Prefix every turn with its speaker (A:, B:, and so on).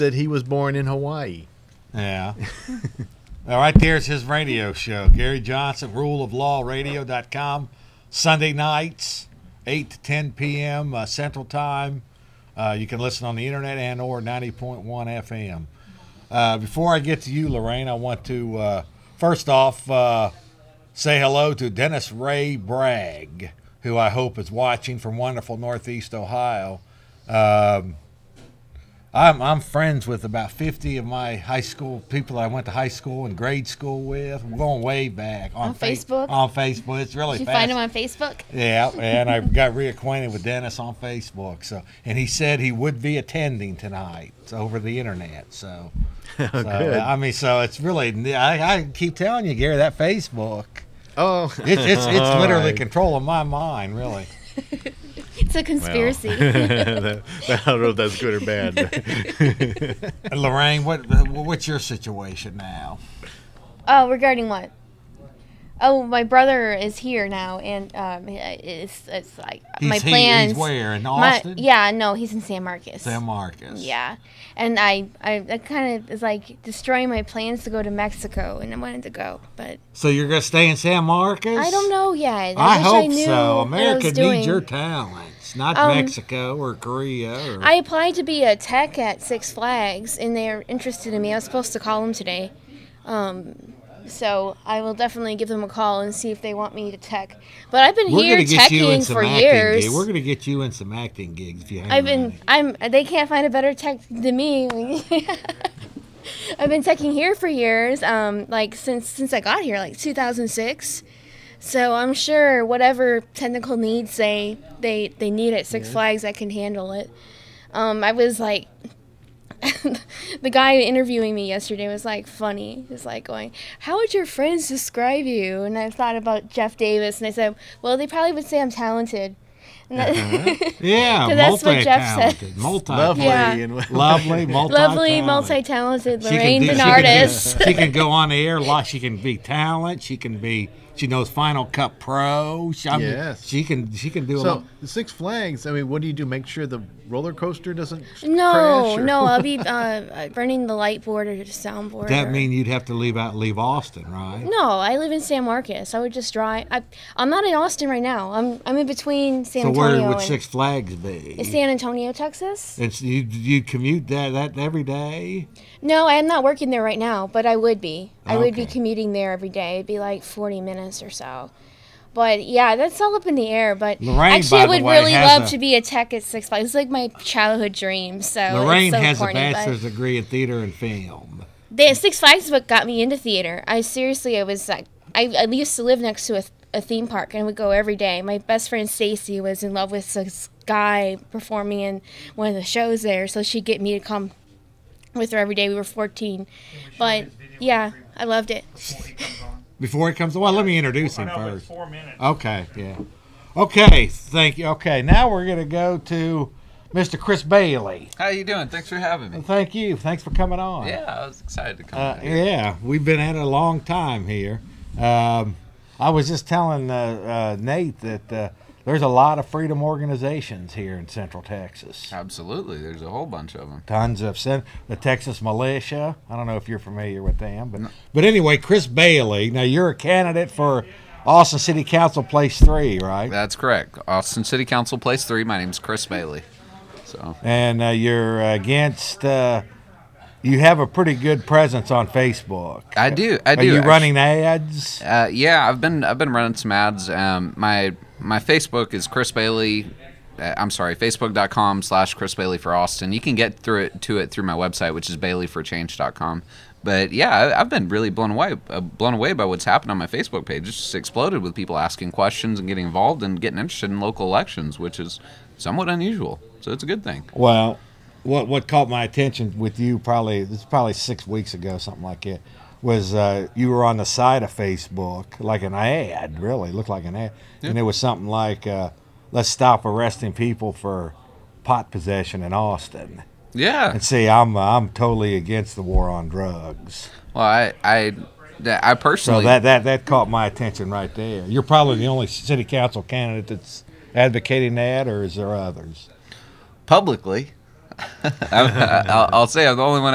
A: that he was born in Hawaii.
B: Yeah. All right, there's his radio show. Gary Johnson, Rule of Law ruleoflawradio.com. Sunday nights, 8 to 10 p.m. Uh, Central Time. Uh, you can listen on the internet and or 90.1 FM. Uh, before I get to you, Lorraine, I want to uh, first off uh, say hello to Dennis Ray Bragg, who I hope is watching from wonderful Northeast Ohio. Um, I'm, I'm friends with about 50 of my high school people I went to high school and grade school with. We're going way back on,
C: On
B: Fa-
C: Facebook?
B: On Facebook, it's really
C: Did you
B: fast.
C: find him on Facebook?
B: Yeah, and I got reacquainted with Dennis on Facebook. So, and he said he would be attending tonight over the internet. So, so,
A: Oh, good.
B: I mean, so it's really I, I keep telling you, Gary, that Facebook
A: Oh,
B: it's it's, it's
A: All
B: literally
A: right.
B: controlling my mind, really.
C: It's a conspiracy.
A: that, I don't know if that's good or bad.
B: And Lorraine, what what's your situation now?
C: Oh, regarding what? Oh, my brother is here now, and um, it's it's like
B: He's
C: my
B: he-
C: plans.
B: He's where in
C: my-
B: Austin?
C: yeah, no, he's in San Marcos.
B: San Marcos.
C: Yeah, and I I that kind of is like destroying my plans to go to Mexico, and I wanted to go, but
B: So you're gonna stay in San Marcos?
C: I don't know yet.
B: I,
C: I, wish
B: hope
C: I knew
B: so.
C: what I
B: America
C: was
B: needs
C: doing.
B: your talents, not
C: Um,
B: Mexico or Korea. Or,
C: I applied to be a tech at Six Flags, and they're interested in me. I was supposed to call them today, um, so I will definitely give them a call and see if they want me to tech. But I've been
B: We're
C: here
B: gonna get you in
C: teching
B: some
C: for
B: acting
C: years.
B: gigs. We're gonna get you in some acting gigs if you hang
C: I've
B: on
C: been,
B: it.
C: I'm, they can't find a better tech than me. I've been teching here for years, um, like since since I got here, like 2006. So I'm sure whatever technical needs they they they need at Six Flags, I can handle it. Um, I was like. the guy interviewing me yesterday was like funny. He's like going, "How would your friends describe you?" And I thought about Jeff Davis, and I said, "Well, they probably would say I'm talented." And that-
B: Yeah,
C: 'Cause that's what Jeff
B: multi-talented,
C: says.
B: multi,
A: Lovely
C: Yeah.
A: and
B: lovely, multi,
C: Lovely, multi-talented Lorraine's an artist.
B: She can go on the air. Like she can be talent. She can be. She knows Final Cut Pro. She, I mean,
A: Yes.
B: she can. She can do a
A: So
B: lot.
A: the Six Flags. I mean, what do you do? Make sure the roller coaster doesn't s-
C: No,
A: crash. or-
C: no, I'll be uh, uh, burning the light board or the soundboard.
B: That
C: or-
B: mean you'd have to leave out, leave Austin, right?
C: No, I live in San Marcos. I would just drive. I, I'm not in Austin right now. I'm I'm in between San
B: so
C: Antonio
B: where would
C: and
B: Six Flags
C: Is
B: be?
C: San Antonio, Texas.
B: And so you you commute that that every day.
C: No, I'm not working there right now, but I would be. I would be
B: Okay.
C: commuting there every day. It'd be like 40 minutes or so. But yeah, that's all up in the air. But
B: Lorraine,
C: actually,
B: by
C: I
B: the
C: would
B: way,
C: really
B: has
C: love
B: a-
C: to be a tech at Six Flags. It's like my childhood dream. So Oh, it's
B: Lorraine
C: so
B: has
C: corny,
B: a
C: but-
B: bachelor's degree in theater and film.
C: The Six Flags book got me into theater. I seriously, I was like, I, I used to live next to a, a theme park and would go every day. My best friend Stacy was in love with this guy performing in one of the shows there, so she'd get me to come with her every day. We were 14, but yeah, I loved it.
B: Before he comes, well, let me introduce him
D: No, but it's
B: first.
D: four minutes.
B: Okay, yeah. Okay, thank you. Okay, now we're gonna go to Mr. Chris Bailey.
E: How you doing? Thanks for having me.
B: Thank you. Thanks for coming on.
E: Yeah, I was excited to come.
B: Uh,
E: out here.
B: yeah, we've been at it a long time here. Um, I was just telling uh, uh, Nate that uh, there's a lot of freedom organizations here in Central Texas.
E: Absolutely. There's a whole bunch of them.
B: Tons of cen- the Texas militia. I don't know if you're familiar with them, but but anyway, Chris Bailey. Now you're a candidate for Austin City Council Place Three, right?
E: That's correct. Austin City Council Place 3. My name's Chris Bailey. So,
B: and uh, you're against. Uh, you have a pretty good presence on Facebook.
E: I do. I
B: Are
E: do.
B: you
E: actu-
B: running ads?
E: Uh, yeah, I've been I've been running some ads. Um, my my Facebook is Chris Bailey. Uh, I'm sorry, facebook.com slash Chris Bailey for Austin. You can get through it to it through my website, which is baileyforchange.com. But yeah, I, I've been really blown away uh, blown away by what's happened on my Facebook page. It's just exploded with people asking questions and getting involved and getting interested in local elections, which is somewhat unusual. So it's a good thing.
B: Well, what what caught my attention with you probably this is probably six weeks ago, something like it, was uh, you were on the side of Facebook like an ad, really looked like an ad, and it was something like, uh, "Let's stop arresting people for pot possession in Austin."
E: Yeah.
B: And see, I'm I'm totally against the war on drugs.
E: Well, I I that- I
B: So
E: personally
B: that, that that caught my attention right there. You're probably the only city council candidate that's advocating that, or is there others?
E: publicly. I, I, I'll, I'll say I'm the only one